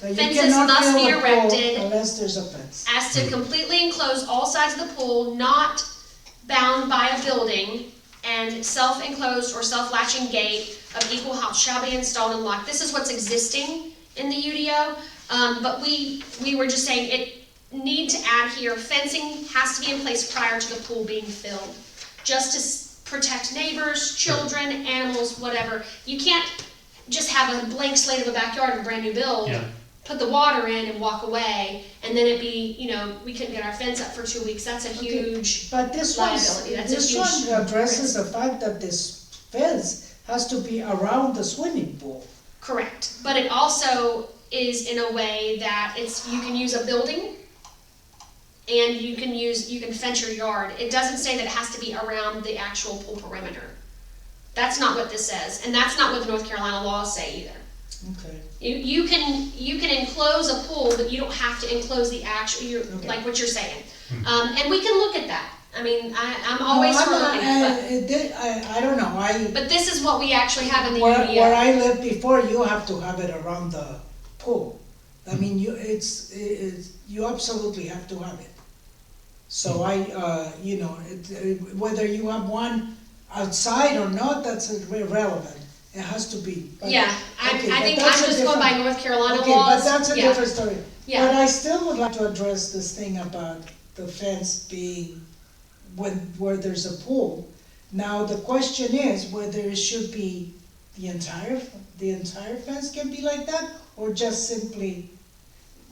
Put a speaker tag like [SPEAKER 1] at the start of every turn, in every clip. [SPEAKER 1] But you
[SPEAKER 2] Fences
[SPEAKER 1] cannot
[SPEAKER 2] must be
[SPEAKER 1] build a pool
[SPEAKER 2] erected.
[SPEAKER 1] Unless there's a fence.
[SPEAKER 2] as to completely enclose all sides of the pool, not bound by a building, and self-enclosed or self-latching gate of equal height shall be installed and locked. This is what's existing in the UDO, um, but we, we were just saying it need to add here, fencing has to be in place prior to the pool being filled, just to s- protect neighbors, children, animals, whatever. You can't just have a blank slate of a backyard and a brand new build
[SPEAKER 3] Yeah.
[SPEAKER 2] put the water in and walk away, and then it'd be, you know, we couldn't get our fence up for two weeks, that's a huge,
[SPEAKER 1] But this one,
[SPEAKER 2] Liability, that's a
[SPEAKER 1] this
[SPEAKER 2] huge
[SPEAKER 1] one addresses the fact that this fence has to be around the swimming pool.
[SPEAKER 2] correct. But it also is in a way that it's, you can use a building, and you can use, you can fence your yard, it doesn't say that it has to be around the actual pool perimeter. That's not what this says, and that's not what the North Carolina laws say either.
[SPEAKER 1] Okay.
[SPEAKER 2] You, you can, you can enclose a pool, but you don't have to enclose the actual, you're,
[SPEAKER 1] Okay.
[SPEAKER 2] like what you're saying. Um, and we can look at that. I mean, I, I'm always
[SPEAKER 1] No, I'm
[SPEAKER 2] for
[SPEAKER 1] not-
[SPEAKER 2] looking at it,
[SPEAKER 1] I- it did- uh, I, I don't know, I,
[SPEAKER 2] but, but this is what we actually have in the
[SPEAKER 1] where, where
[SPEAKER 2] UDO.
[SPEAKER 1] I lived before, you have to have it around the pool. I mean, you, it's, it's, you absolutely have to have it. So I, uh, you know, it, it- whether you have one outside or not, that's irrelevant, it has to be. But-
[SPEAKER 2] Yeah, I,
[SPEAKER 1] okay,
[SPEAKER 2] I
[SPEAKER 1] but
[SPEAKER 2] think I'm
[SPEAKER 1] that's a
[SPEAKER 2] just going by
[SPEAKER 1] different-
[SPEAKER 2] North Carolina
[SPEAKER 1] Okay, but
[SPEAKER 2] laws.
[SPEAKER 1] that's a
[SPEAKER 2] Yeah.
[SPEAKER 1] different story.
[SPEAKER 2] Yeah.
[SPEAKER 1] But I still would like to address this thing about the fence being when, where there's a pool. Now, the question is whether it should be the entire, the entire fence can be like that, or just simply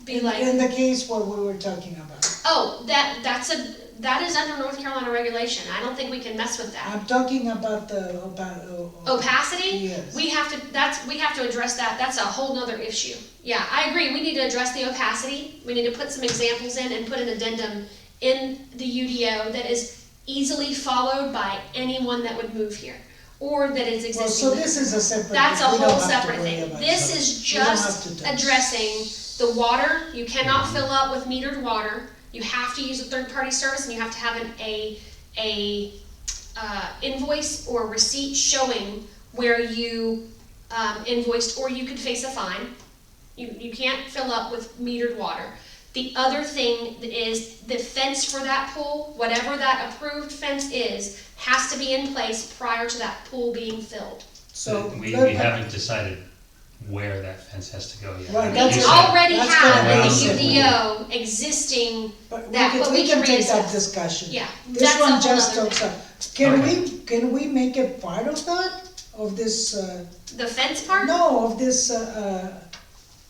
[SPEAKER 2] Be
[SPEAKER 1] in
[SPEAKER 2] like,
[SPEAKER 1] the case what we were talking about.
[SPEAKER 2] oh, that, that's a, that is under North Carolina regulation. I don't think we can mess with that.
[SPEAKER 1] I'm talking about the, about, oh, oh,
[SPEAKER 2] Opacity,
[SPEAKER 1] Yes.
[SPEAKER 2] we have to, that's, we have to address that. That's a whole nother issue. Yeah, I agree. We need to address the opacity. We need to put some examples in and put an addendum in the UDO that is easily followed by anyone that would move here or that is existing.
[SPEAKER 1] well, so this is a separate.
[SPEAKER 2] That's a
[SPEAKER 1] we don't
[SPEAKER 2] whole
[SPEAKER 1] have to
[SPEAKER 2] separate
[SPEAKER 1] worry
[SPEAKER 2] thing.
[SPEAKER 1] about
[SPEAKER 2] This
[SPEAKER 1] that.
[SPEAKER 2] is
[SPEAKER 1] We don't have to
[SPEAKER 2] just
[SPEAKER 1] touch. Mm-hmm.
[SPEAKER 2] addressing the water, you cannot fill up with metered water. You have to use a third-party service and you have to have an, a, a, uh, invoice or receipt showing where you, um, invoiced, or you could face a fine. You, you can't fill up with metered water. The other thing is the fence for that pool, whatever that approved fence is, has to be in place prior to that pool being filled.
[SPEAKER 1] So.
[SPEAKER 3] We,
[SPEAKER 1] let-
[SPEAKER 3] we haven't decided where that fence has to go yet.
[SPEAKER 1] Right, that's
[SPEAKER 2] We
[SPEAKER 1] Yes.
[SPEAKER 2] already
[SPEAKER 1] That's
[SPEAKER 2] have
[SPEAKER 3] gonna
[SPEAKER 2] in the
[SPEAKER 3] be something.
[SPEAKER 2] UDO existing,
[SPEAKER 1] But we
[SPEAKER 2] That-
[SPEAKER 1] can,
[SPEAKER 2] but
[SPEAKER 1] we
[SPEAKER 2] we
[SPEAKER 1] can
[SPEAKER 2] can
[SPEAKER 1] take that
[SPEAKER 2] reassess.
[SPEAKER 1] discussion.
[SPEAKER 2] yeah.
[SPEAKER 1] This
[SPEAKER 2] that's a
[SPEAKER 1] one
[SPEAKER 2] whole
[SPEAKER 1] just
[SPEAKER 2] nother-
[SPEAKER 1] talks, up. can
[SPEAKER 3] Okay.
[SPEAKER 1] we, can we make it part of that, of this, uh,
[SPEAKER 2] The fence part?
[SPEAKER 1] no, of this, uh, uh,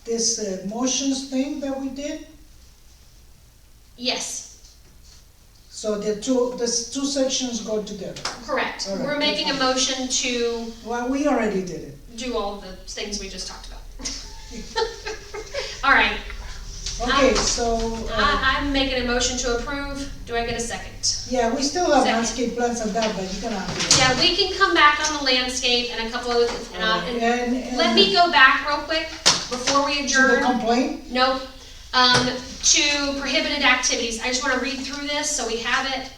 [SPEAKER 1] this uh, motions thing that we did?
[SPEAKER 2] Yes,
[SPEAKER 1] So the two, the s- two sections go together.
[SPEAKER 2] correct.
[SPEAKER 1] All right,
[SPEAKER 2] We're making a motion to
[SPEAKER 1] Well, we already did it.
[SPEAKER 2] do all the things we just talked about. All right, Ah.
[SPEAKER 1] Okay, so, uh,
[SPEAKER 2] I, I'm making a motion to approve. Do I get a second?
[SPEAKER 1] yeah, we still have
[SPEAKER 2] Second.
[SPEAKER 1] landscape plans and that, but you're gonna have to.
[SPEAKER 2] Yeah, we can come back on the landscape and a couple other things. and I- and
[SPEAKER 1] And, and.
[SPEAKER 2] Let me go back real quick before we
[SPEAKER 1] To the
[SPEAKER 2] adjourn.
[SPEAKER 1] complaint,
[SPEAKER 2] Nope. Um, to prohibited activities, I just wanna read through this, so we have it,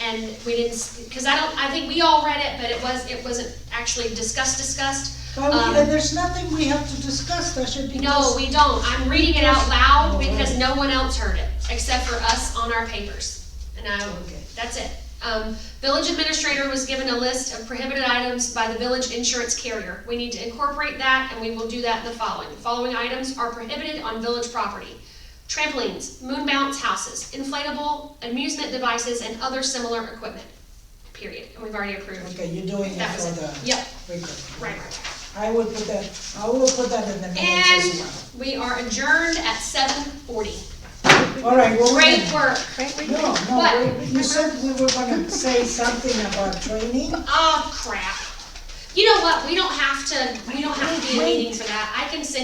[SPEAKER 2] and we didn't, because I don't, I think we all read it, but it was, it wasn't actually discussed, discussed.
[SPEAKER 1] but
[SPEAKER 2] Um,
[SPEAKER 1] we, and there's nothing we have to discuss, that should be.
[SPEAKER 2] No, we don't, I'm reading it out
[SPEAKER 1] Oh,
[SPEAKER 2] loud because no one else heard it, except for us on our papers. And I,
[SPEAKER 1] Okay.
[SPEAKER 2] that's it. Um, village administrator was given a list of prohibited items by the village insurance carrier. We need to incorporate that, and we will do that in the following. The Following items are prohibited on village property. Trampolines, moon bounce houses, inflatable amusement devices, and other similar equipment, period. And we've already approved.
[SPEAKER 1] Okay, you're doing it
[SPEAKER 2] That was
[SPEAKER 1] for the.
[SPEAKER 2] it. Yep,
[SPEAKER 1] record.
[SPEAKER 2] right, right.
[SPEAKER 1] I will put that, I will put that in the minutes
[SPEAKER 2] And
[SPEAKER 1] as
[SPEAKER 2] we are adjourned at seven forty.
[SPEAKER 1] well. All right, well, wait.
[SPEAKER 2] Oh, Great work.
[SPEAKER 1] No, no,
[SPEAKER 2] What?
[SPEAKER 1] we- you said we were gonna say something about training.
[SPEAKER 2] Oh crap. You know what? We don't have to, we don't have to be in a meeting for that. I can send